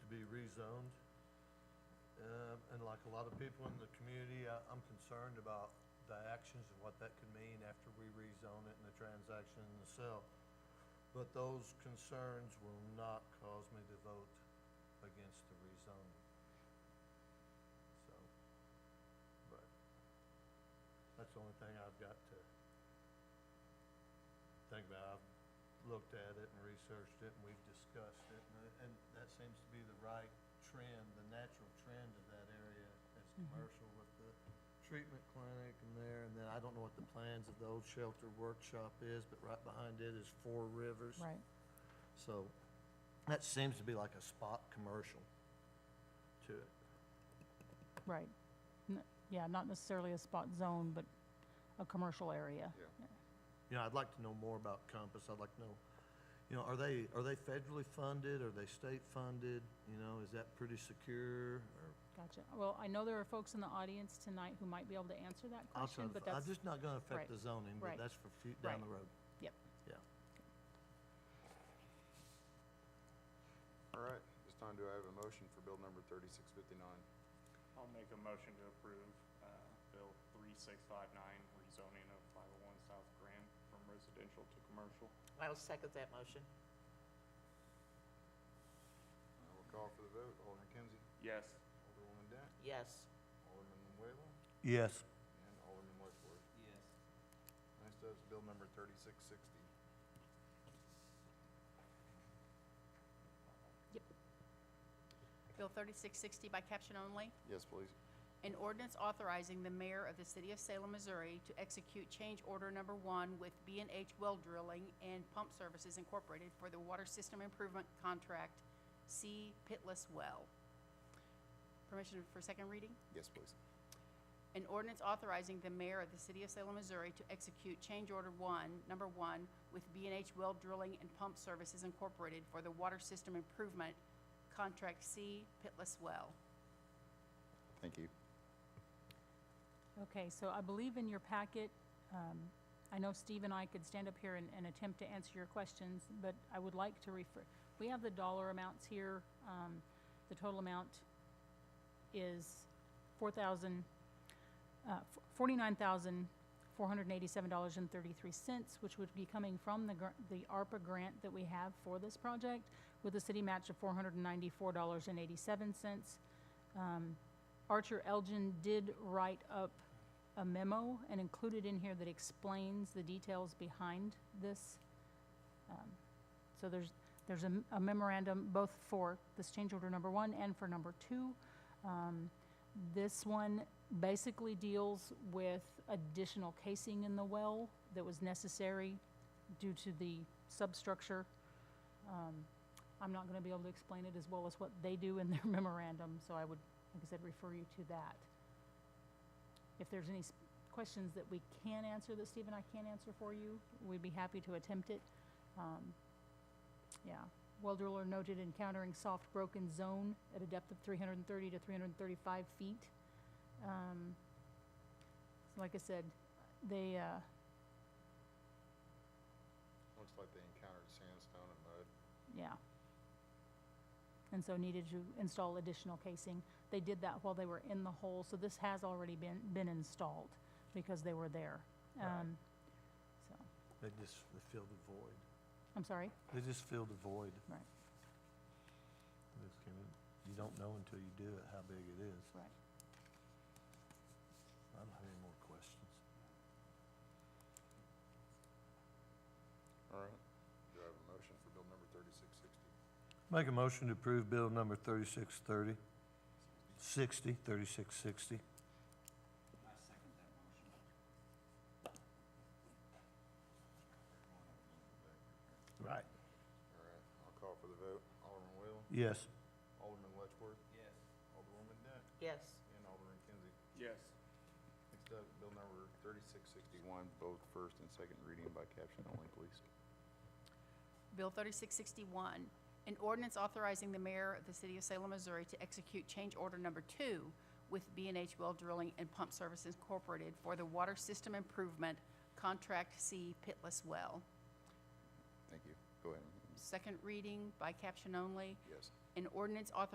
rezoned. Um, And like a lot of people in the community, I- I'm concerned about the actions and what that could mean after we rezone it and the transaction and the sale. But those concerns will not cause me to vote against the rezoning. So, but that's the only thing I've got to think about. I've looked at it and researched it, and we've discussed it, and- uh, and that seems to be the right trend, the natural trend of that area as commercial with the treatment clinic and there, and then I don't know what the plans of the old shelter workshop is, but right behind it is Four Rivers. Right. So that seems to be like a spot commercial to it. Right. N- Yeah, not necessarily a spot zone, but a commercial area. You know, I'd like to know more about Compass. I'd like to know, you know, are they, are they federally funded? Are they state funded? You know, is that pretty secure or? Gotcha. Well, I know there are folks in the audience tonight who might be able to answer that I'll try question, to but fi- I'm that's, just not gonna affect right, the zoning, but right, that's for fu- down the right. road. yep. Yeah. All right, this time do I have a motion for bill number thirty-six fifty-nine? I'll make a motion to approve uh, Bill 3659, rezoning of 501 South Graham from residential to commercial. I will second that I motion. will call for the vote. Alderman Kinsey, Yes. Alderwoman Dent, Yes. Alderman Whalen, Yes. and Alderman Whitworth. Yes. Next up is bill number thirty-six sixty. Bill 3660 by caption only, Yes, please. an ordinance authorizing the mayor of the city of Salem, Missouri to execute change order number one with b and H Well Drilling and Pump Services Incorporated for the Water System Improvement Contract C Pitless Well. Permission for second reading? Yes, please. An ordinance authorizing the mayor of the city of Salem, Missouri to execute change order one, number one, with b and H Well Drilling and Pump Services Incorporated for the Water System Improvement Contract C Pitless Well. Thank you. Okay, so I believe in your packet, um, I know Steve and I could stand up here and, and attempt to answer your questions, but I would like to refer, we have the dollar amounts here. Um, The total amount is four thousand, uh, forty-nine thousand, four hundred and eighty-seven dollars and thirty-three cents, which would be coming from the, gr- the ARPA grant that we have for this project with a city match of four hundred and ninety-four dollars and eighty-seven cents. Archer Elgin did write up a memo and included in here that explains the details behind this. Um, So there's, there's a a memorandum both for this change order number one and for number two. Um, This one basically deals with additional casing in the well that was necessary due to the substructure. I'm not going to be able to explain it as well as what they do in their memorandum, so I would, like I said, refer you to that. If there's any s- questions that we can answer, that Steve and I can answer for you, we'd be happy to attempt it. Um, Yeah. Well driller noted encountering soft broken zone at a depth of 330 to 335 feet. Um, so Like I said, they, uh, Looks like they encountered sandstone and mud. Yeah. And so needed to install additional casing. They did that while they were in the hole, so this has already been, been installed because they were there. Um, So, They just, they filled the void. I'm sorry, They just filled the void. right, They just came in. You don't know until you do it how big it is. right. I don't have any more questions. All right. Do I have a motion for bill number thirty-six sixty? Make a motion to approve bill number thirty-six thirty, sixty, thirty-six sixty. I second that motion. Right. All right, I'll call for the vote. Alderman Whalen, Yes. Alderman Letchworth, Yes. Alderwoman Dent, Yes. and Alderman Kinsey. Yes. Next up, bill number thirty-six sixty-one, both first and second reading by caption only, please. Bill 3661, an ordinance authorizing the mayor of the city of Salem, Missouri to execute change order number two with b and H Well Drilling and Pump Services Incorporated for the Water System Improvement Contract C Pitless Well. Thank you. Go ahead. Second reading by caption only, Yes. an ordinance authorizing